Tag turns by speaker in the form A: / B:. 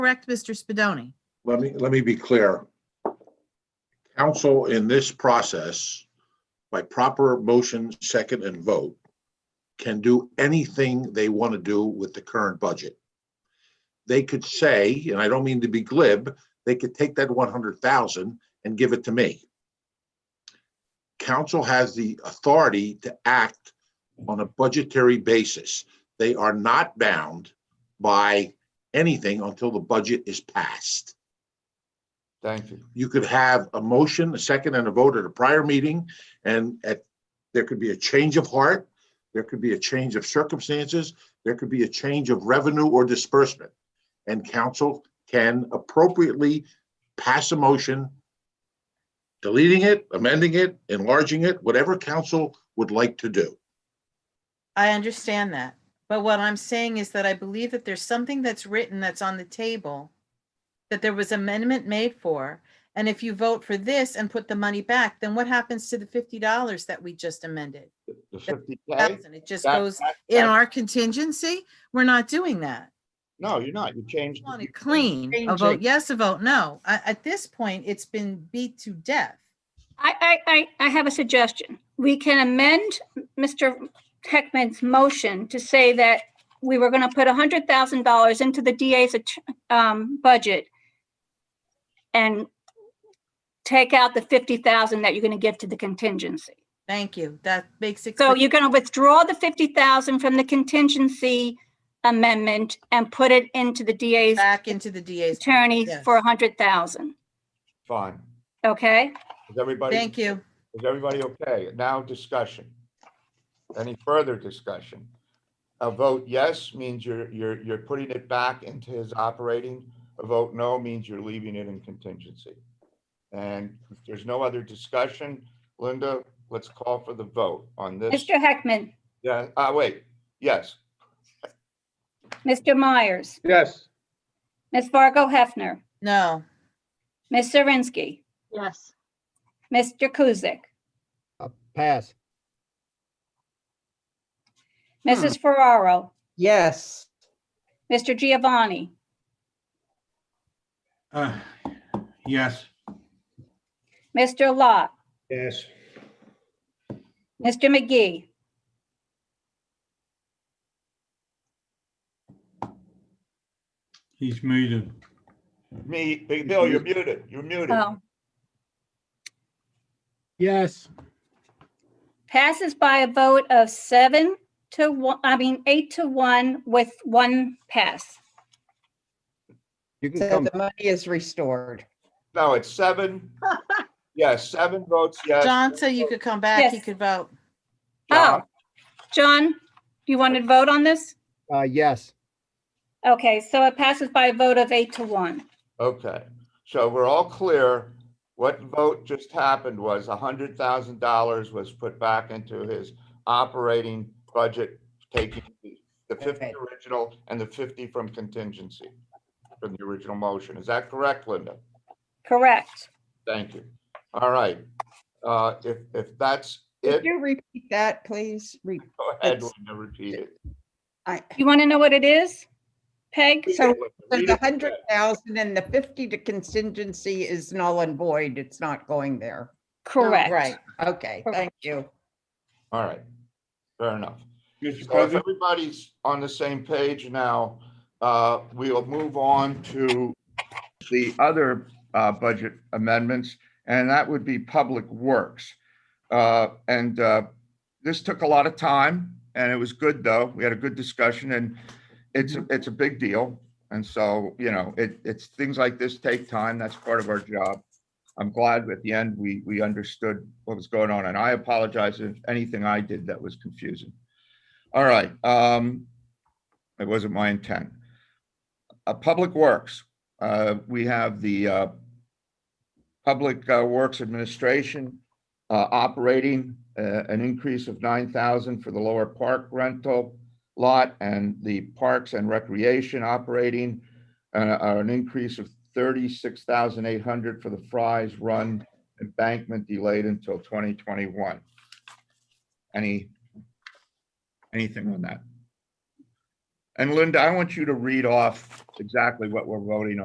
A: correct, Mr. Spadoni?
B: Let me, let me be clear. Council in this process, by proper motion, second and vote, can do anything they want to do with the current budget. They could say, and I don't mean to be glib, they could take that one hundred thousand and give it to me. Council has the authority to act on a budgetary basis. They are not bound by anything until the budget is passed
C: Thank you.
B: you could have a motion, a second and a vote at a prior meeting. And at, there could be a change of heart, there could be a change of circumstances, there could be a change of revenue or disbursement. And council can appropriately pass a motion, deleting it, amending it, enlarging it, whatever council would like to do.
A: I understand that, but what I'm saying is that I believe that there's something that's written that's on the table that there was amendment made for, and if you vote for this and put the money back, then what happens to the fifty dollars that we just amended?
C: The fifty K?
A: Thousand, it just goes in our contingency? We're not doing that.
C: No, you're not. You changed.
A: I Want
C: it.
A: it clean, a vote yes, a vote no. At, at this point, it's been beat to death.
D: I, I, I, I have a suggestion. We can amend Mr. Heckman's motion to say that we were going to put hundred thousand dollars into the DA's, att- um, budget and take out the fifty thousand that you're going to give to the contingency.
A: Thank you. That makes it.
D: So
A: clear.
D: you're going to withdraw the fifty thousand from the contingency amendment and put it into the DA's
A: Back into the DA's.
D: attorney
A: yes.
D: for a hundred thousand,
C: Fine.
D: okay?
C: Is everybody?
A: Thank you.
C: Is everybody okay? Now discussion. Any further discussion? A vote yes means you're, you're, you're putting it back into his operating. A vote no means you're leaving it in contingency. And if there's no other discussion, Linda, let's call for the vote on this.
D: Mr. Heckman,
C: Yeah, uh, wait, yes.
D: Mr. Myers,
C: Yes.
D: Ms. Fargo Hefner.
A: No,
D: Ms. Zirinsky.
E: Yes.
D: Mr. Kuzic.
F: Pass.
D: Mrs. Ferraro.
F: Yes.
D: Mr. Giovanni.
G: Uh, Yes.
D: Mr. Lot.
G: Yes.
D: Mr. McGee.
G: He's muted.
C: Me, Big Bill, you're muted, you're muted.
D: Oh,
F: Yes.
D: Passes by a vote of seven to one, I mean, eight to one with one pass.
H: You can
F: So
H: come,
F: the money is restored.
C: No, it's seven. Yes, seven votes, yes.
A: John said you could come back. He
D: Yes.
A: could vote.
C: John,
D: Oh. John, you want to vote on this?
F: Uh, yes.
D: Okay, so it passes by a vote of eight to one.
C: Okay, so we're all clear. What vote just happened was hundred thousand dollars was put back into his operating budget, taking the- the fifty
F: Okay.
C: original and the fifty from contingency from the original motion. Is that correct, Linda?
D: Correct.
C: Thank you. All right. Uh, if, if that's it,
H: could you repeat that, please? Re-
C: go ahead,
H: it's-
C: Linda, repeat it.
H: I-
D: You want to know what it is? Peg?
C: Read it,
H: So,
C: Linda,
H: So
C: read
H: the
C: it.
H: hundred thousand and the fifty to contingency is null and void. It's not going there.
D: Correct.
A: Right.
H: Okay, thank you.
C: All right, fair enough.
G: Mr.
C: So if
G: President,
C: everybody's on the same page now, uh, we'll move on to the other uh, budget amendments, and that would be Public Works. Uh, And uh, this took a lot of time, and it was good, though. We had a good discussion, and it's, it's a big deal. And so, you know, it, it's, things like this take time. That's part of our job. I'm glad at the end, we, we understood what was going on, and I apologize if anything I did that was confusing. All right, um, it wasn't my intent. Uh, Public Works, uh, we have the, uh, Public uh, Works Administration, uh, operating, uh, an increase of nine thousand for the lower park rental lot and the Parks and Recreation operating, uh, uh, an increase of thirty-six thousand eight hundred for the Fry's Run embankment delayed until twenty twenty-one. Any anything on that? And Linda, I want you to read off exactly what we're voting on.